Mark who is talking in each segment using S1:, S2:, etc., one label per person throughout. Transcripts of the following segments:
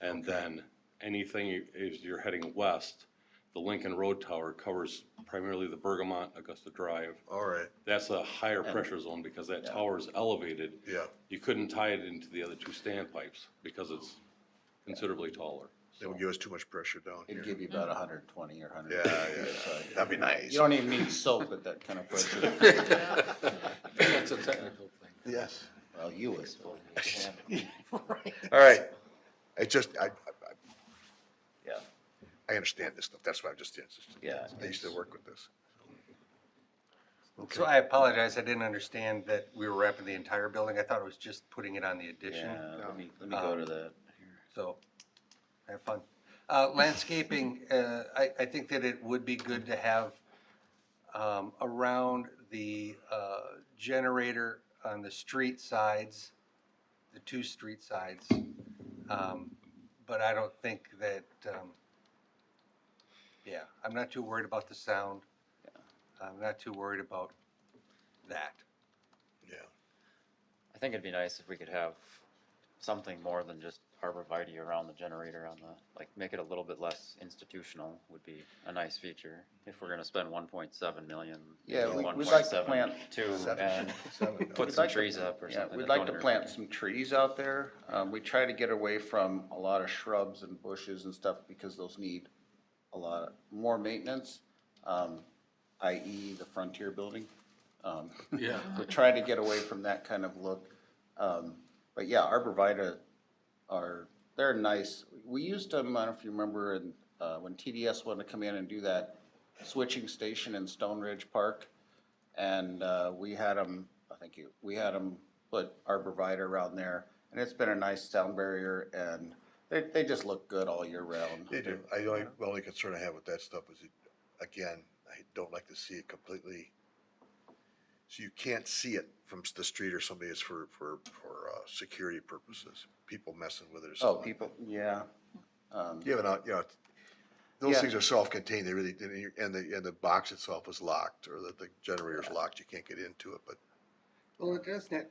S1: And then anything is you're heading west, the Lincoln Road Tower covers primarily the Bergamot, Augusta Drive.
S2: All right,
S1: That's a higher pressure zone because that tower is elevated.
S2: yeah,
S1: You couldn't tie it into the other two standpipes because it's considerably taller.
S2: that would give us too much pressure down
S3: It'd
S2: here.
S3: give you about hundred and twenty or hundred.
S2: Yeah, yeah, that'd be nice.
S3: You don't even need soap at that kind of pressure.
S4: That's a technical thing.
S2: Yes.
S3: Well, you would. so-
S2: All right, I just, I, I, I-
S3: Yeah,
S2: I understand this stuff, that's why I'm just, it's just-
S3: yeah.
S2: I used to work with this.
S5: So I apologize, I didn't understand that we were wrapping the entire building, I thought it was just putting it on the addition,
S3: Yeah, let me,
S2: Uh,
S3: let me go to that. here.
S5: so, have fun. Uh, landscaping, uh, I, I think that it would be good to have, um, around the, uh, generator on the street sides, the two street sides, um, but I don't think that, um, yeah, I'm not too worried about the sound. I'm not too worried about that.
S2: Yeah,
S6: I think it'd be nice if we could have something more than just arborvitae around the generator on the, like, make it a little bit less institutional would be a nice feature. If we're gonna spend one point seven million,
S3: Yeah, we-
S6: one
S3: we'd
S6: point
S3: like to
S6: seven
S3: plant
S6: two,
S3: seven.
S6: and
S2: Seven,
S6: put
S3: We'd
S6: some
S3: like to-
S6: trees up or
S3: Yeah,
S6: something.
S3: We'd
S6: that
S3: like
S6: don't
S3: to plant
S6: interfere.
S3: some trees out there. Um, we try to get away from a lot of shrubs and bushes and stuff because those need a lot of- more maintenance, um, i.e. the frontier building. Um,
S4: Yeah.
S3: We're trying to get away from that kind of look. Um, but yeah, arborvitae are, they're nice. We used them, I don't know if you remember, and, uh, when TDS wanted to come in and do that switching station in Stone Ridge Park. And, uh, we had them, I think you, we had them put arborvitae around there. And it's been a nice sound barrier and they, they just look good all year round. Oh,
S2: they do, I, the only, the only concern I have with that stuff is, it- again, I don't like to see it completely. So you can't see it from s- the street or somebody, it's for, for, for, uh, security purposes, people messing with it or
S3: Oh,
S2: something.
S3: people, yeah. Um,
S2: Yeah, but, uh, you know, it's- those
S3: Yeah.
S2: things are self-contained, they really, and you- and the, and the box itself is locked, or the, the generator's locked, you can't get into it, but,
S5: Well, it doesn't,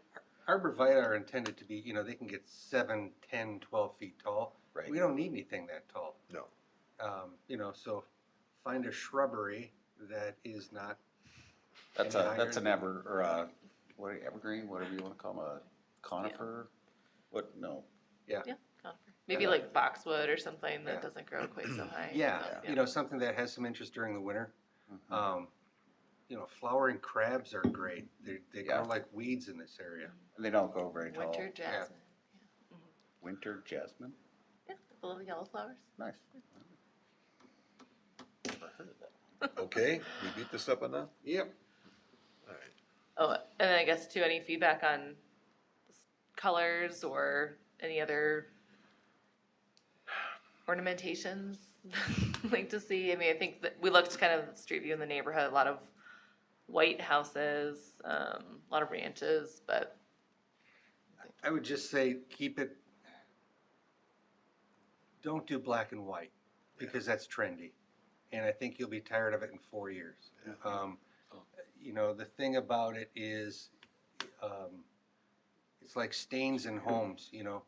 S5: arborvitae are intended to be, you know, they can get seven, ten, twelve feet tall.
S3: Right.
S5: We don't need anything that tall.
S2: no.
S5: Um, you know, so find a shrubbery that is not,
S3: That's
S5: And
S3: a,
S5: iron.
S3: that's an ever, or a, what, are- evergreen, whatever you wanna call them, a conifer? What, no,
S7: Conifer. Maybe like boxwood or something
S5: Yeah.
S7: that doesn't grow quite so high.
S5: yeah,
S7: Um,
S5: you know, something that has some interest during the winter.
S3: Mm-hmm.
S5: Um, you know, flowering crabs are great. They, they grow
S3: Yeah.
S5: like weeds in this area.
S3: they don't go very tall.
S7: Winter jasmine.
S3: Winter jasmine,
S7: Yeah, the little yellow flowers.
S3: nice.
S2: Okay, we beat this up enough?
S5: Yep.
S7: Oh, and then I guess too, any feedback on s- colors or any other ornamentations? Like to see, I mean, I think that we looked kind of street view in the neighborhood, a lot of white houses, um, a lot of ranches, but
S5: I would just say, keep it, don't do black and white, because that's trendy. And I think you'll be tired of it in four years.
S2: Uh,
S5: Um, You know, the thing about it is, um, it's like stains in homes, you know?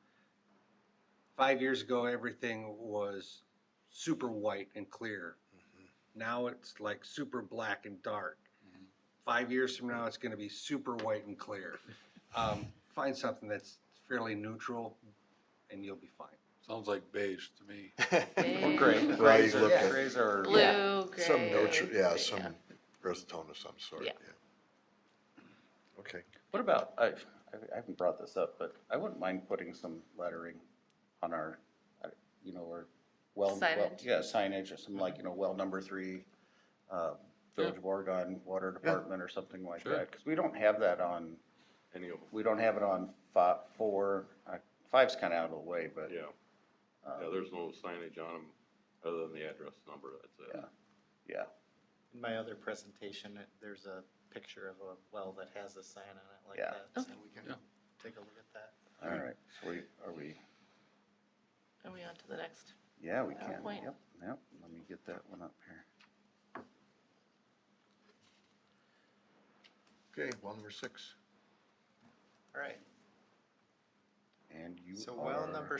S5: Five years ago, everything was super white and clear. Now it's like super black and dark. Five years from now, it's gonna be super white and clear um, find something that's fairly neutral and you'll be fine.
S4: Sounds like beige to me.
S7: big,
S3: Gray,
S2: Well,
S3: grays
S2: you
S3: are,
S2: look at
S3: grays are,
S7: blue,
S2: Some
S7: gray.
S2: notch, yeah, some earth tone of some sort, yeah.
S7: Yeah.
S2: Okay,
S3: what about, I, I haven't brought this up, but I wouldn't mind putting some lettering on our, uh, you know, or well, well,
S7: Signage?
S3: yeah, signage or some like, you know, well number three, uh, Village of Oregon Water Department or something like
S4: Sure.
S3: that, cause we don't have that on
S1: Any of them,
S3: We don't have it on fi- four, uh, five's kind of out of the way, but um,
S1: yeah. Yeah, there's no signage on them other than the address number, that's it.
S3: Yeah. yeah,
S8: In my other presentation, it- there's a picture of a well that has a sign on it like
S3: Yeah.
S8: that. So we can
S4: Yeah.
S8: take a look at that.
S3: all right, so we, are we,
S7: Are we on to the next?
S3: yeah, we
S7: Good
S3: can,
S7: point.
S3: yep, yep, let me get that one up here.
S2: okay, well, number six.
S8: All right,
S3: And you
S8: so well
S3: are-
S8: number